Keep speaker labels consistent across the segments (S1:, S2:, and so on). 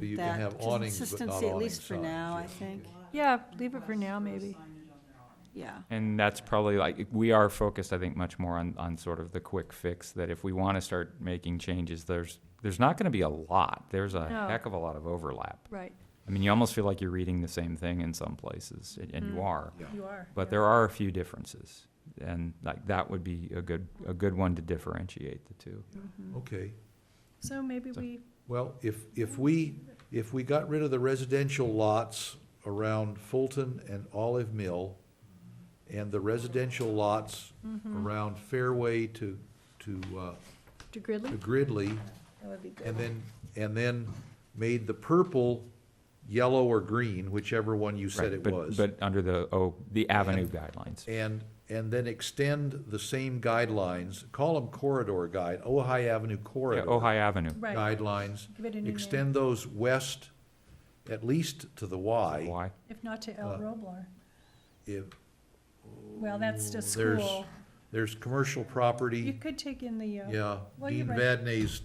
S1: So you can
S2: that
S1: have awnings, but not
S2: consistency, at least
S1: awning
S2: for
S1: signs,
S2: now,
S1: yeah.
S2: I think,
S3: Yeah, leave it for now, maybe.
S2: yeah.
S4: And that's probably like, we are focused, I think, much more on, on sort of the quick fix, that if we want to start making changes, there's, there's not going to be a lot. There's a
S3: No.
S4: heck of a lot of overlap.
S3: Right,
S4: I mean, you almost feel like you're reading the same thing in some places, and- and you
S3: Mm.
S4: are.
S3: you are.
S4: But there are a few differences, and like, that would be a good, a good one to differentiate the two.
S2: Mhm.
S1: Okay,
S3: Mm-hmm. So maybe
S4: So-
S3: we,
S1: well, if, if we, if we got rid of the residential lots around Fulton and Olive Mill, and the residential lots
S2: Mm-hmm.
S1: around Fairway to, to, uh,
S3: to
S1: to
S3: Gridley?
S1: Gridley,
S3: That would be good.
S1: and then, and then made the purple yellow or green, whichever one you said
S4: Right,
S1: it
S4: but-
S1: was.
S4: But under the, oh, the avenue guidelines.
S1: And, and then extend the same guidelines, call them corridor guide, Ojai Avenue
S4: Yeah,
S1: corridor.
S4: Ojai Avenue.
S3: Right,
S1: guidelines,
S3: Give it a new name.
S1: extend those west, at least to the Y.
S4: Why?
S3: if not to El
S1: uh,
S3: Roblar.
S1: If
S3: Well, that's a
S1: there's-
S3: school.
S1: there's commercial
S3: You
S1: property,
S3: could take in the, uh,
S1: yeah,
S3: well, you're
S1: Dean
S3: right.
S1: Vadnais,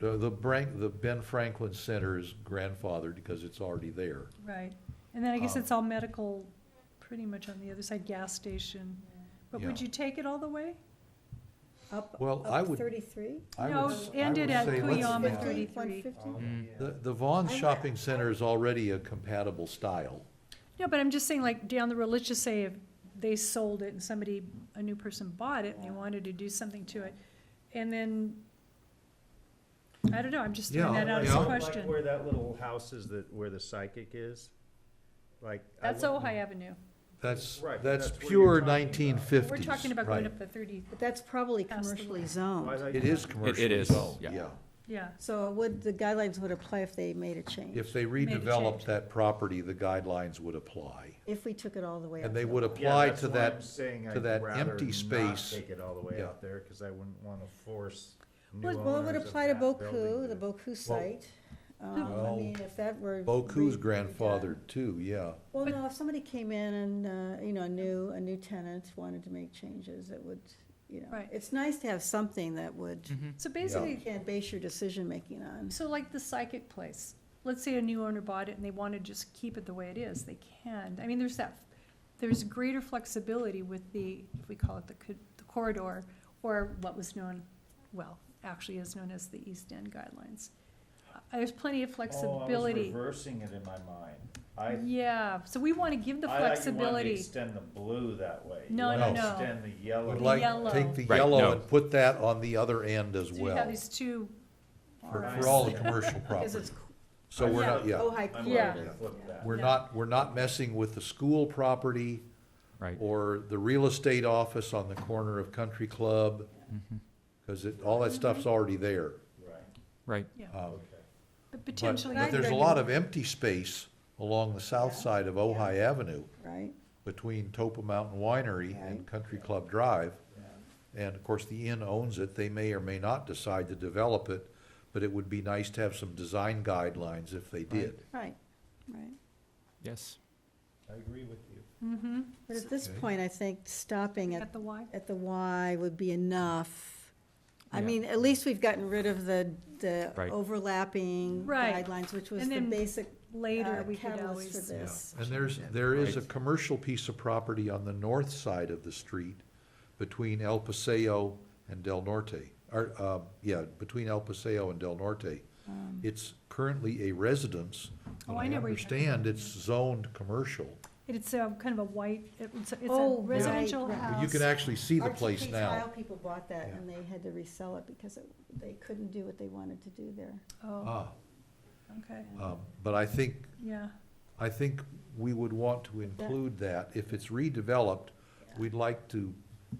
S1: the, the Brank, the Ben Franklin Center is grandfathered because it's already there.
S3: Right, and then I guess
S1: Um,
S3: it's all medical, pretty much on the other side, gas station. But would
S1: Yeah.
S3: you take it all the way?
S5: Up,
S1: Well, I
S5: up
S1: would-
S5: thirty-three?
S1: I would
S3: No,
S1: s- I
S3: end
S1: would
S3: it at
S1: say let's-
S3: Kuyama
S1: yeah.
S3: 33.
S1: The, the Vaughn
S5: I would-
S1: Shopping Center is already a compatible style.
S3: No, but I'm just saying, like, down the road, let's just say if they sold it and somebody, a new person bought it and they wanted to do something to it, and then, I don't know, I'm just throwing
S1: Yeah,
S3: that out as
S1: yeah.
S3: a
S1: Like
S3: question.
S6: Like where that little house is that, where the psychic is, like. I
S3: That's
S6: wouldn't-
S3: Ojai Avenue.
S1: That's,
S6: Right,
S1: that's
S6: that's what you're
S1: pure
S6: talking about.
S1: nineteen fifties,
S3: We're talking about going up the thirty,
S5: But that's probably
S3: Past the
S5: commercially
S3: line.
S5: zoned.
S6: Why is that-
S1: It is commercial.
S4: is, yeah.
S1: Yeah.
S3: yeah,
S5: So it would, the guidelines would apply if they made a change,
S1: If they
S3: Made a
S1: redeveloped
S3: change.
S1: that property, the guidelines would apply.
S5: if we took it all the way up.
S1: And they
S5: to
S1: would
S5: Oakland.
S6: Yeah,
S1: apply
S6: that's
S1: to
S6: why I'm
S1: that,
S6: saying
S1: to
S6: I'd
S1: that
S6: rather
S1: empty
S6: not
S1: space.
S6: Take it all the way
S1: Yeah.
S6: up there, cause I wouldn't wanna force new owners of that
S5: Well, it would apply to
S6: building Oh,
S5: Boku, the Boku site. Um, I
S1: Well,
S5: mean, if that were.
S1: Boku's
S5: re- redone.
S1: grandfathered too, yeah.
S5: Well, no, if somebody came in and, uh, you know, a new, a new tenant wanted to make changes, it would, you know.
S3: Right.
S5: It's nice to have something that would,
S1: Mm-hmm.
S3: so
S5: you
S3: basically,
S5: can't base your decision-making on.
S3: so like the psychic place, let's say a new owner bought it and they want to just keep it the way it is, they can. I mean, there's that, there's greater flexibility with the, if we call it the co- the corridor, or what was known, well, actually is known as the East End guidelines. Uh, There's plenty of
S6: Oh, I was
S3: flexibility.
S6: reversing it in my mind. I,
S3: Yeah, so we want to give the
S6: I like you wanted to
S3: flexibility.
S6: extend the blue that way. You
S3: No,
S1: no,
S6: wanna
S3: no.
S6: Extend the yellow.
S1: Would
S3: The
S1: like,
S3: yellow.
S1: take the
S4: Right,
S1: yellow
S4: no.
S1: and put that on the other end as
S3: So you have
S1: well,
S3: these two.
S1: for,
S3: arms.
S1: for all the commercial
S5: Because
S1: property.
S5: it's
S1: So we're not, yeah,
S6: Yeah.
S5: Ojai
S6: I'm
S3: Yeah.
S6: ready to flip that.
S1: we're
S3: Yeah.
S1: not, we're not messing with the school property
S4: Right.
S1: or the real estate office on the corner of Country Club,
S4: Mm-hmm.
S1: because it, all that stuff's already there.
S6: Right,
S4: Right.
S1: Um, But,
S3: But potentially.
S1: but there's a lot of empty space along the south
S5: Yeah.
S1: side of Ojai Avenue.
S5: Right?
S1: between Topa Mountain Winery and
S5: Right.
S1: Country Club Drive. And of course, the inn owns it, they may or may not decide to develop it, but it would be nice to have some design guidelines if they did.
S5: Right, right.
S4: Yes.
S6: I agree with you.
S3: Mm-hmm,
S5: But at this
S1: Okay.
S5: point, I think stopping at, uh,
S3: at the Y.
S5: at the Y would be enough. I
S4: Yeah.
S5: mean, at least we've gotten rid of the, the
S4: Right.
S5: overlapping
S3: Right.
S5: guidelines, which was
S3: And
S5: the
S3: then
S5: basic uh,
S3: Later, we could
S5: catalyst for
S3: always.
S5: this.
S1: And there's, there is a
S4: Right.
S1: commercial piece of property on the north side of the street between El Paseo and Del Norte, or, uh, yeah, between El Paseo and Del Norte.
S5: um,
S1: It's currently a residence, but
S3: Oh, I
S1: I
S3: know where you're talking
S1: understand it's zoned commercial.
S3: It's a kind of a white, it's a it's a
S5: Oh, right,
S3: residential
S5: right.
S3: house.
S1: You can actually see the place
S5: RTP
S1: now.
S5: tile people bought that and they had to resell it because it- they couldn't do what they wanted to do there.
S3: Oh,
S1: Ah,
S3: okay,
S1: um, But I think,
S3: yeah,
S1: I think we would want to include that. If it's redeveloped, we'd like to,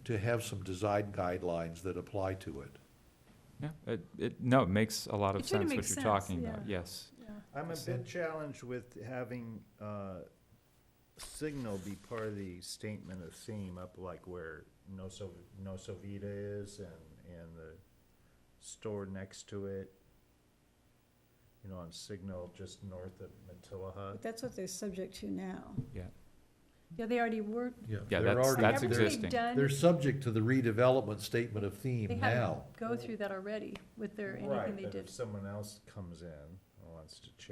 S1: to have some design guidelines that apply to it.
S4: Yeah. It, it, no, it makes a lot of
S3: It sort of
S4: sense what
S3: makes
S4: you're
S3: sense,
S4: talking about.
S3: yeah.
S4: Yes.
S3: yeah.
S6: I'm a
S4: Percent.
S6: bit challenged with having, uh, signal be part of the statement of theme up like where No Sov- No Sovita is and, and the store next to it. You know, on Signal just north of Matilah.
S5: But that's what they're subject to now.
S3: Yeah, they already were,
S4: Yeah,
S1: They're
S4: that's,
S1: already-
S4: that's
S3: haven't
S1: they're-
S3: they
S4: existing.
S1: They're
S3: done,
S1: subject to the redevelopment statement of
S3: they
S1: theme
S3: had
S1: now.
S3: go through that already with their,
S6: Right,
S3: anything they
S6: but
S3: did.
S6: if someone else comes in and wants to change